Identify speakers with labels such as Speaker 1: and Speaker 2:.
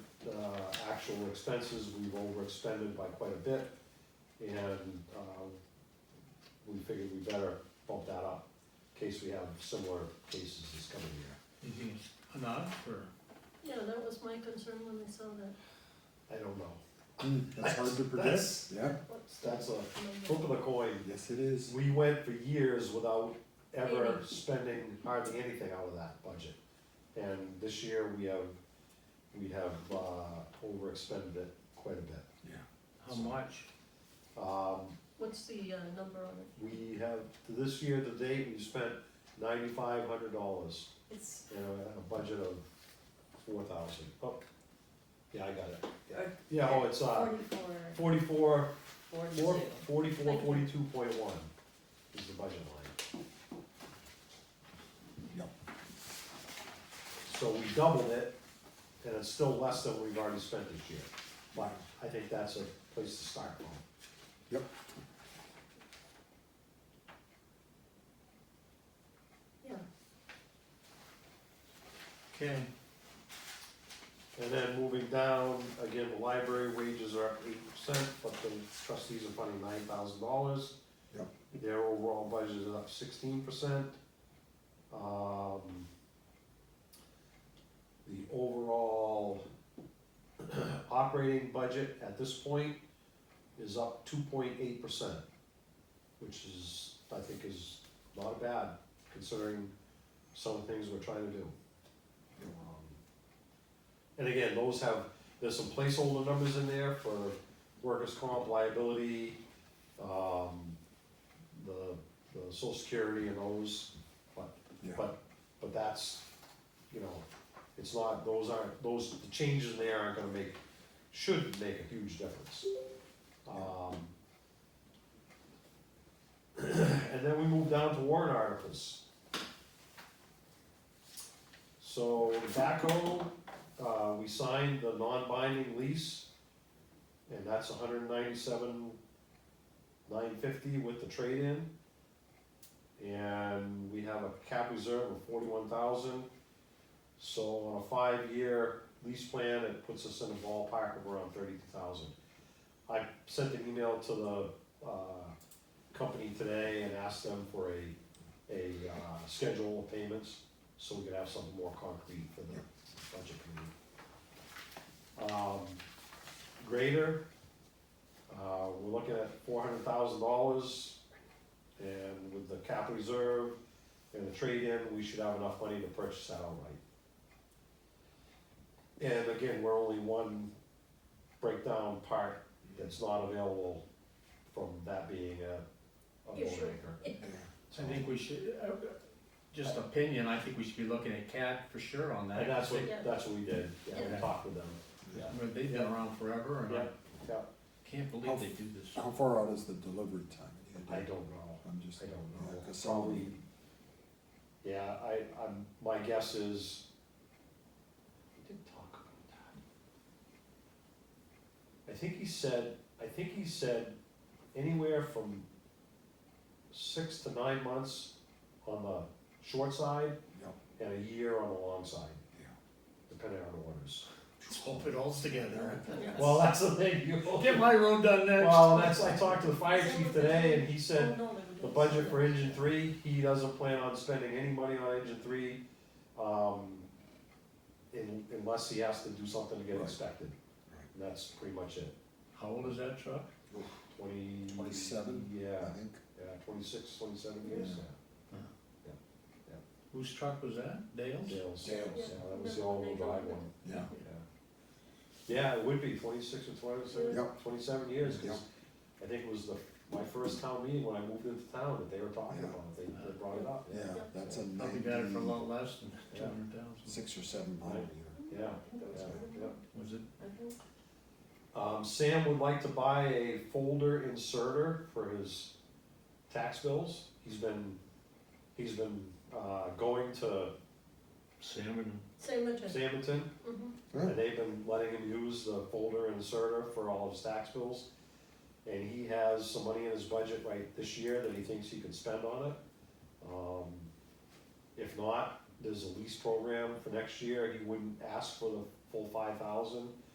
Speaker 1: actual expenses, we've overexpended by quite a bit, and, uh, we figured we better bump that up, in case we have similar cases this coming year.
Speaker 2: You think it's enough, or?
Speaker 3: Yeah, that was my concern when I saw that,
Speaker 1: I don't know,
Speaker 4: Mm, That's hard to predict,
Speaker 1: That's-
Speaker 4: yeah,
Speaker 3: what's the
Speaker 1: that's a flip
Speaker 3: number?
Speaker 1: of the coin.
Speaker 4: yes it is.
Speaker 1: We went for years without ever
Speaker 3: Any.
Speaker 1: spending hardly anything out of that budget. And this year, we have, we have, uh, overexpended it quite a bit.
Speaker 2: How much?
Speaker 1: Um,
Speaker 3: What's the, uh, number on it?
Speaker 1: We have, this year to date, we spent ninety-five hundred dollars,
Speaker 5: It's,
Speaker 1: and a a budget of four thousand. Oh, yeah, I got it. Yeah.
Speaker 5: Or-
Speaker 1: Yeah, oh, it's, uh,
Speaker 5: forty-four,
Speaker 1: forty-four,
Speaker 5: forty-two.
Speaker 1: four, forty-four,
Speaker 5: Thank you.
Speaker 1: forty-two point one is the budget line.
Speaker 4: Yep.
Speaker 1: So we doubled it, and it's still less than we've already spent this year. But I think that's a place to start from.
Speaker 3: Yeah,
Speaker 2: Okay,
Speaker 1: And then moving down, again, the library wages are up eight percent, but the trustees are funding nine thousand dollars.
Speaker 4: Yep.
Speaker 1: Their overall budget is up sixteen percent. Um, the overall operating budget at this point is up two point eight percent, which is, I think is not bad considering some of the things we're trying to do. Um, and again, those have, there's some placeholder numbers in there for workers' comp liability, um, the, the social security and those, but,
Speaker 4: Yeah.
Speaker 1: but, but that's, you know, it's not, those aren't, those, the changes in there aren't gonna make, should make a huge difference. Um, and then we move down to warrant articles. So tobacco, uh, we signed the non-binding lease, and that's a hundred and ninety-seven, nine fifty with the trade-in. And we have a cap reserve of forty-one thousand, so on a five-year lease plan, it puts us in a ballpark of around thirty thousand. I sent an email to the, uh, company today and asked them for a, a, uh, schedule of payments, so we could have something more concrete for the budget committee. Um, grader, uh, we're looking at four hundred thousand dollars, and with the capital reserve and the trade-in, we should have enough money to purchase that outright. And again, we're only one breakdown part that's not available from that being a, a
Speaker 3: You
Speaker 1: vote
Speaker 3: sure?
Speaker 1: anchor.
Speaker 4: Yeah.
Speaker 2: I think we should, uh, just opinion, I think we should be looking at CAT for sure on that.
Speaker 1: And that's what,
Speaker 3: Yeah.
Speaker 1: that's what we did, yeah, we
Speaker 2: Yeah.
Speaker 1: talked with them, yeah,
Speaker 2: Where They've been around forever, and
Speaker 1: yeah,
Speaker 2: I
Speaker 1: yeah,
Speaker 2: can't believe they do this.
Speaker 4: How far out is the delivery time? Do you
Speaker 1: I
Speaker 4: think?
Speaker 1: don't know.
Speaker 4: I'm just,
Speaker 1: I don't
Speaker 4: yeah,
Speaker 1: know.
Speaker 4: 'cause some of
Speaker 1: Probably,
Speaker 4: the-
Speaker 1: yeah, I, I'm, my guess is, we did talk about that. I think he said, I think he said anywhere from six to nine months on the short side
Speaker 4: Yep,
Speaker 1: and a year on the long side,
Speaker 4: yeah.
Speaker 1: depending on orders.
Speaker 2: Let's hope it all's together.
Speaker 1: Well, that's the thing, you,
Speaker 2: Get my road done next.
Speaker 1: well, that's, I talked to the fire chief today and he said,
Speaker 3: Oh, no, they were
Speaker 1: The
Speaker 3: doing
Speaker 1: budget for
Speaker 3: something.
Speaker 1: engine three, he doesn't plan on spending any money on engine three, um, in- unless he has to do something to get
Speaker 4: Right.
Speaker 1: inspected.
Speaker 4: Right.
Speaker 1: And that's pretty much it,
Speaker 2: How old is that truck?
Speaker 1: twenty.
Speaker 4: 27? I
Speaker 1: Yeah,
Speaker 4: think,
Speaker 1: yeah, twenty-six, twenty-seven years,
Speaker 2: Whose truck was that? Dale's?
Speaker 1: yeah, Dale's, yeah,
Speaker 4: Dale's.
Speaker 1: that was the all-wheel drive one,
Speaker 4: yeah,
Speaker 1: yeah. Yeah, it would be twenty-six or twenty-seven,
Speaker 4: Yep.
Speaker 1: twenty-seven years,
Speaker 4: Yep.
Speaker 1: cause I think it was the, my first town meeting when I moved into town that they were talking
Speaker 4: Yeah.
Speaker 1: about, it. they, they brought it up, yeah.
Speaker 4: yeah, that's a
Speaker 2: Probably got it for a
Speaker 4: ninety,
Speaker 2: lot less than two
Speaker 1: Yeah.
Speaker 2: hundred thousand.
Speaker 4: six or seven mile
Speaker 1: Right.
Speaker 4: either.
Speaker 3: Mm-hmm.
Speaker 1: Yeah, yeah, yeah.
Speaker 2: Was it?
Speaker 1: Um, Sam would like to buy a folder inserter for his tax bills. He's been, he's been, uh, going to
Speaker 2: Salmon.
Speaker 3: Same address,
Speaker 1: Samanton,
Speaker 3: mhm,
Speaker 1: and they've been letting him use the folder inserter for all of his tax bills. And he has some money in his budget right this year that he thinks he can spend on it. Um, if not, there's a lease program for next year, he wouldn't ask for the full five thousand,